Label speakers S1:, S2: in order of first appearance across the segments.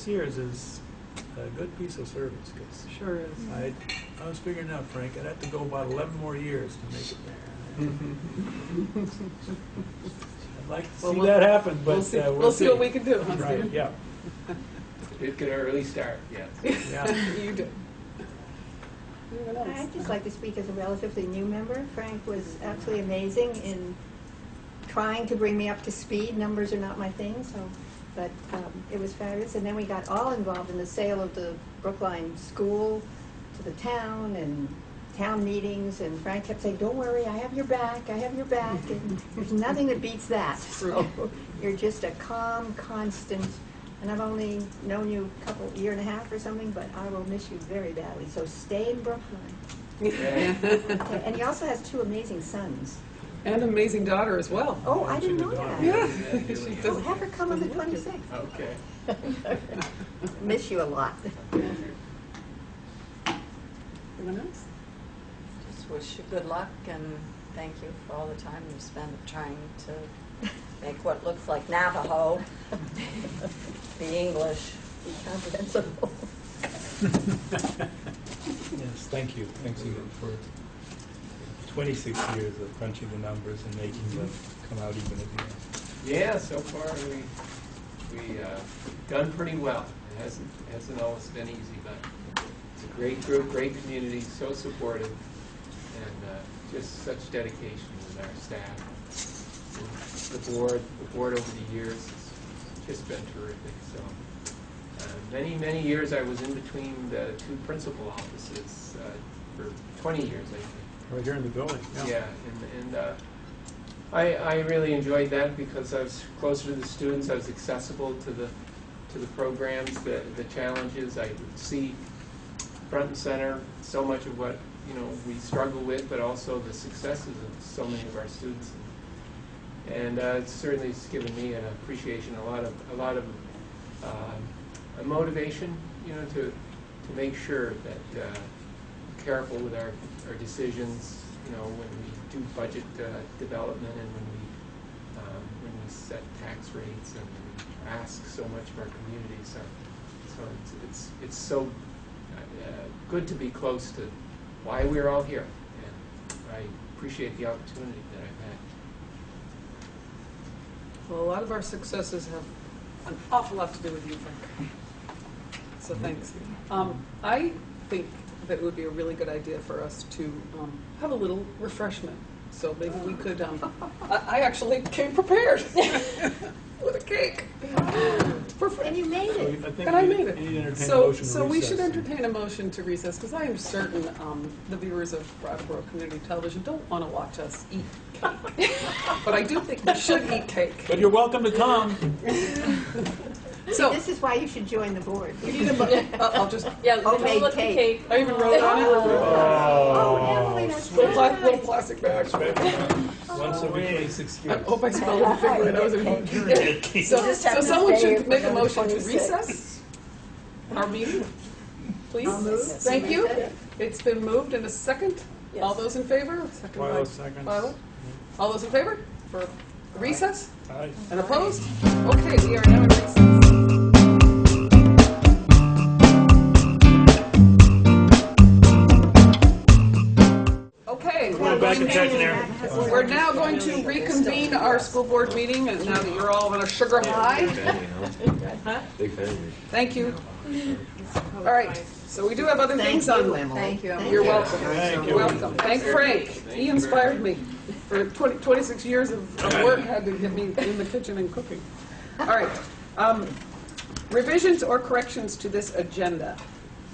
S1: Sears is a good piece of service, because
S2: Sure is.
S1: I, I was figuring out, Frank, I'd have to go about eleven more years to make it there.
S3: Mm-hmm.
S1: I'd like to
S2: Well,
S1: see
S2: we'll-
S1: that happen, but uh,
S2: We'll see, we'll see what we can do, huh,
S1: Right,
S2: Steve?
S1: yeah,
S3: It could early start, yes.
S1: yeah.
S2: You do. Anyone else?
S4: I'd just like to speak as a relatively new member. Frank was absolutely amazing in trying to bring me up to speed. Numbers are not my thing, so, but um, it was fabulous. And then we got all involved in the sale of the Brookline School to the town and town meetings, and Frank kept saying, "Don't worry, I have your back, I have your back," and there's nothing that beats that. So you're just a calm, constant, and I've only known you a couple, year and a half or something, but I will miss you very badly. So stay in Brookline. Okay, And he also has two amazing sons.
S2: And amazing daughter as well.
S4: Oh, I didn't know that.
S2: Yeah.
S3: Yeah,
S2: She
S4: Oh,
S2: does.
S4: have her come on the 26th.
S3: Okay.
S4: Oh. Miss you a lot.
S2: Anyone else?
S5: Just wish you good luck and thank you for all the time you spent trying to make what looks like Navajo be English.
S4: Be comprehensible.
S6: Yes, thank you. Thanks again for 26 years of crunching the numbers and making them come out even at the end.
S3: Yeah, so far we, we, uh, done pretty well. It hasn't, hasn't always been easy, but it's a great group, great community, so supportive, and, uh, just such dedication with our staff. And The board, the board over the years has just been terrific, so. Uh, Many, many years I was in between the two principal offices, uh, for twenty years, I think.
S1: Right here in the building, yeah.
S3: Yeah, and, and uh, I, I really enjoyed that because I was closer to the students, I was accessible to the, to the programs, the, the challenges, I would see front and center so much of what, you know, we struggle with, but also the successes of so many of our students. And uh, it's certainly it's given me an appreciation, a lot of, a lot of um, a motivation, you know, to, to make sure that uh, we're careful with our, our decisions, you know, when we do budget uh, development and when we, um, when we set tax rates and we ask so much of our community. So, so it's, it's, it's so uh, uh, good to be close to why we're all here. And I appreciate the opportunity that I've had.
S2: Well, a lot of our successes have an awful lot to do with you, Frank. So thanks. Um, I think that it would be a really good idea for us to um, have a little refreshment. So maybe we could, um, I I actually came prepared with a cake. for Frank.
S4: And you made
S1: So
S4: it.
S1: I think
S2: And I
S1: we
S2: made it.
S1: need to entertain a
S2: So,
S1: motion to
S2: so we should
S1: recess.
S2: entertain a motion to recess, because I am certain um, the viewers of Brattleboro Community Television don't want to watch us eat cake. But I do think we should eat cake.
S1: But you're welcome to come.
S2: So,
S4: This is why you should join the board.
S2: we need a, mo- I'll I'll just,
S7: Yeah, the
S4: Homemade
S7: chocolate
S4: cake.
S7: cake.
S2: I even wrote on it,
S4: Oh, Emily, that's
S2: little pla- little
S4: good.
S2: plastic bags.
S6: Once every 26
S2: I
S6: years.
S2: hope I spelled it correctly, that was a- So,
S4: just have
S2: so
S4: to
S2: someone
S4: stay
S2: should
S4: for
S2: make a
S4: the
S2: motion to
S4: 26.
S2: recess our meeting, please.
S4: I'll move.
S2: Thank you. It's been moved in a second. All
S7: Yes.
S2: those in favor? Second by
S1: Twilight seconds.
S2: Twyla. All those in favor for recess
S1: Aye.
S2: and opposed? Okay, we are now in recess. Okay,
S1: Going back and checking there.
S2: we're now going to reconvene our school board meeting, and now that you're all on a sugar high,
S8: Big family.
S2: thank you. All right, so we do have other
S4: Thank
S2: things
S4: you,
S2: on.
S4: Emily.
S5: Thank you.
S4: Thank
S2: You're welcome.
S1: Thank you.
S2: Welcome. Thank Frank. He inspired me. For 20 26 years of of work, had to get me in the kitchen and cooking. All right. Um, Revisions or corrections to this agenda?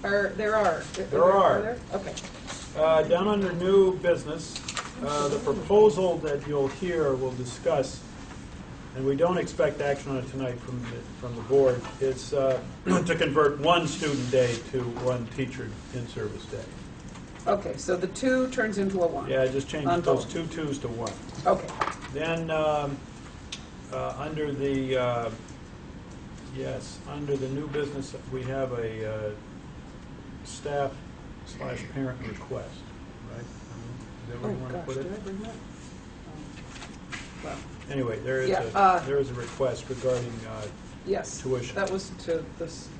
S2: Are, there are?
S1: There are.
S2: there? Okay.
S1: Uh, Down under new business, uh, the proposal that you'll hear will discuss, and we don't expect action on it tonight from, the- from the board, is uh, to convert one student day to one teacher in-service day.
S2: Okay, so the two turns into a one.
S1: Yeah, just change
S2: On
S1: those
S2: both.
S1: two twos to one.
S2: Okay.
S1: Then, um, uh, under the, uh, yes, under the new business, we have a uh, staff slash parent request, right? Is that
S2: Oh,
S1: where you want to
S2: gosh,
S1: put it?
S2: did I bring that? Um, Well,
S1: Anyway, there is
S2: Yeah, uh,
S1: a, there is a request regarding uh,
S2: yes.
S1: Tuition.
S2: That was to this.